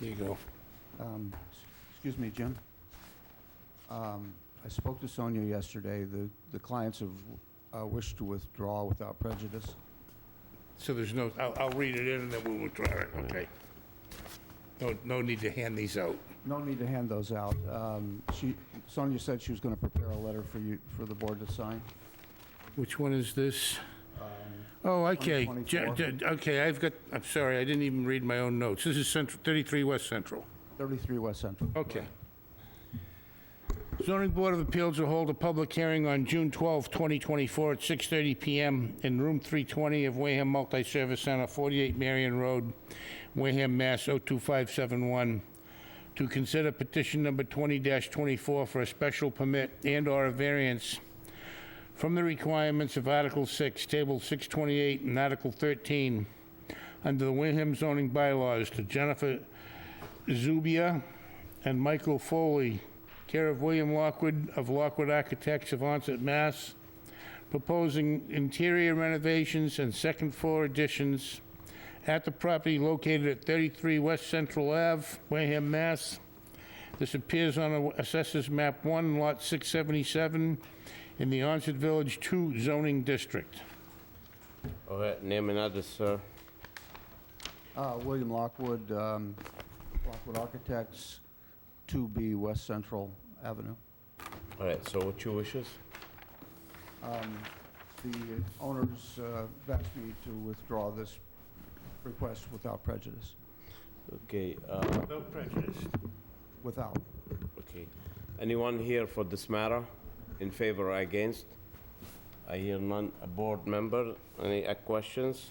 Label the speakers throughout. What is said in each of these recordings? Speaker 1: There you go.
Speaker 2: Um, s- Excuse me, Jim. Um, I spoke to Sonia yesterday. The the clients have uh, wished to withdraw without prejudice.
Speaker 1: So there's no, I'll, I'll read it in and then we'll withdraw it, okay? No, no need to hand these out.
Speaker 2: No need to hand those out. Um, She, Sonia said she was going to prepare a letter for you, for the board to sign.
Speaker 1: Which one is this? Oh, okay. J-
Speaker 2: 124.
Speaker 1: j- Okay, I've got, I'm sorry, I didn't even read my own notes. This is Central, 33 West Central.
Speaker 2: 33 West Central.
Speaker 1: Okay. Zoning Board of Appeals will hold a public hearing on June 12, 2024 at 6:30 PM in Room 320 of Wareham Multi-Service Center, 48 Marion Road, Wareham, Mass. 02571, to consider petition number 20-24 for a special permit and/or a variance from the requirements of Article 6, Table 628, and Article 13 under the Wareham zoning bylaws to Jennifer Zubia and Michael Foley, care of William Lockwood of Lockwood Architects of Onset, Mass., proposing interior renovations and second-floor additions at the property located at 33 West Central Ave, Wareham, Mass. This appears on Assessors Map 1, Lot 677, in the Onset Village 2 zoning district.
Speaker 3: All right, name and address, sir.
Speaker 2: Uh, William Lockwood, um, Lockwood Architects, 2B West Central Avenue.
Speaker 3: All right, so what's your wishes?
Speaker 2: Um, The owners uh, asked me to withdraw this request without prejudice.
Speaker 3: Okay, uh,
Speaker 1: No prejudice.
Speaker 2: Without.
Speaker 3: okay. Anyone here for this matter? In favor or against? I hear none. A board member, any uh, questions?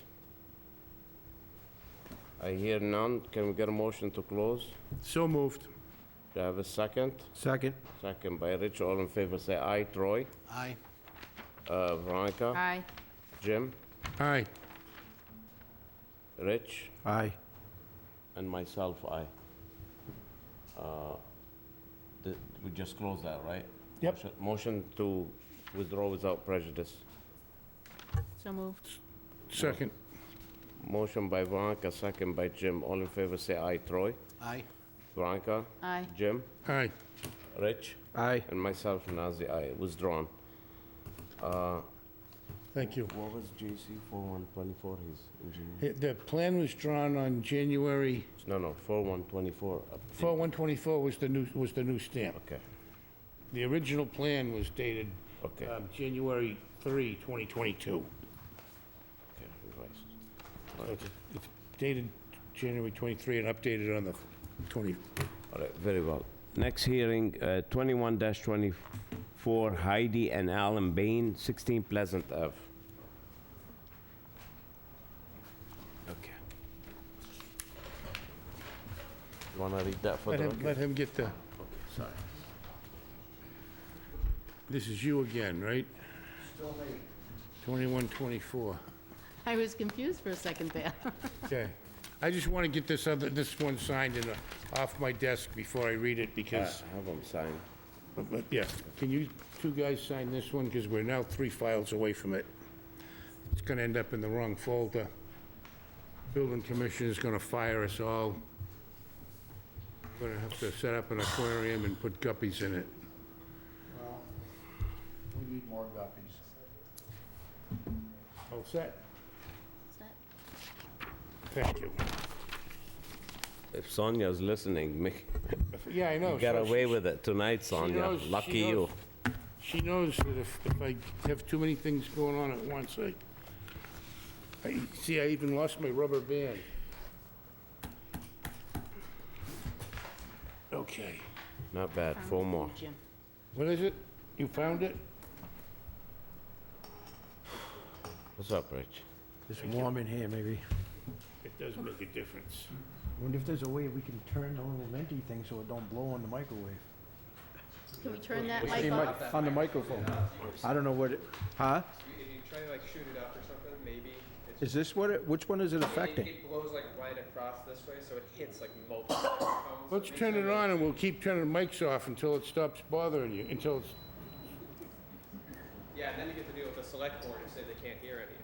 Speaker 3: I hear none. Can we get a motion to close?
Speaker 1: So moved.
Speaker 3: Do I have a second?
Speaker 4: Second.
Speaker 3: Second by Rich. All in favor, say aye. Troy?
Speaker 4: Aye.
Speaker 3: Uh, Veronica?
Speaker 5: Aye.
Speaker 3: Jim?
Speaker 1: Aye.
Speaker 3: Rich?
Speaker 4: Aye.
Speaker 3: And myself, aye. Uh, th- We just close that, right?
Speaker 1: Yep.
Speaker 3: Motion- Motion to withdraw without prejudice.
Speaker 5: So moved.
Speaker 1: Second.
Speaker 3: Motion by Veronica, second by Jim. All in favor, say aye. Troy?
Speaker 4: Aye.
Speaker 3: Veronica?
Speaker 5: Aye.
Speaker 3: Jim?
Speaker 1: Aye.
Speaker 3: Rich?
Speaker 4: Aye.
Speaker 3: And myself, Nazir, aye. Withdrawn.
Speaker 1: Thank you.
Speaker 3: What was JC 4124, his engineer?
Speaker 1: Yeah, The plan was drawn on January,
Speaker 3: No, no, 4124. up there.
Speaker 1: 4124 was the new, was the new stamp.
Speaker 3: uh, Okay,
Speaker 1: The original plan was dated
Speaker 3: Okay.
Speaker 1: um, January 3, 2022.
Speaker 3: okay, revised.
Speaker 1: So It's it's dated January 23 and updated on the 20,
Speaker 3: All right, very well. Next hearing, uh, 21-24 Heidi and Alan Bain, 16 Pleasant Ave. Okay. You want to read that for
Speaker 1: let
Speaker 3: the
Speaker 1: him,
Speaker 3: record?
Speaker 1: let him get the... Sorry. This is you again, right?
Speaker 2: Still me.
Speaker 1: 2124.
Speaker 5: I was confused for a second there.
Speaker 1: Okay. I just want to get this other, this one signed and uh, off my desk before I read it
Speaker 3: Uh,
Speaker 1: because...
Speaker 3: Have him sign.
Speaker 1: But yeah, can you two guys sign this one, because we're now three files away from it. It's gonna end up in the wrong folder. Building commissioner's gonna fire us all. We're gonna have to set up an aquarium and put guppies in it.
Speaker 2: We need more copies.
Speaker 1: All set? Thank you.
Speaker 3: If Sonia's listening, make-
Speaker 1: Yeah, I know.
Speaker 3: you got
Speaker 1: so she-
Speaker 3: away with it tonight,
Speaker 1: she
Speaker 3: Sonia.
Speaker 1: knows- she
Speaker 3: Lucky you.
Speaker 1: knows- She knows that if, if I have too many things going on at once, I, I, see, I even lost my rubber band. Okay,
Speaker 3: Not bad, four more.
Speaker 5: Jim.
Speaker 1: what is it? You found it?
Speaker 3: What's up, Rich?
Speaker 4: It's warm in here, maybe.
Speaker 1: It does make a difference.
Speaker 6: Wonder if there's a way we can turn the little venti thing so it don't blow on the microwave.
Speaker 5: Can we turn that
Speaker 4: Hey,
Speaker 5: mic
Speaker 4: mic-
Speaker 5: off?
Speaker 4: On the microphone. I don't know what it, huh?
Speaker 7: If you try to like shoot it up or something, maybe it's
Speaker 4: Is this what it, which one is it
Speaker 7: it,
Speaker 4: affecting?
Speaker 7: it blows like right across this way, so it hits like multiple microphones.
Speaker 1: Let's turn it on and we'll keep turning mics off until it stops bothering you, until it's
Speaker 7: Yeah, and then you get to deal with the select board and say they can't hear any.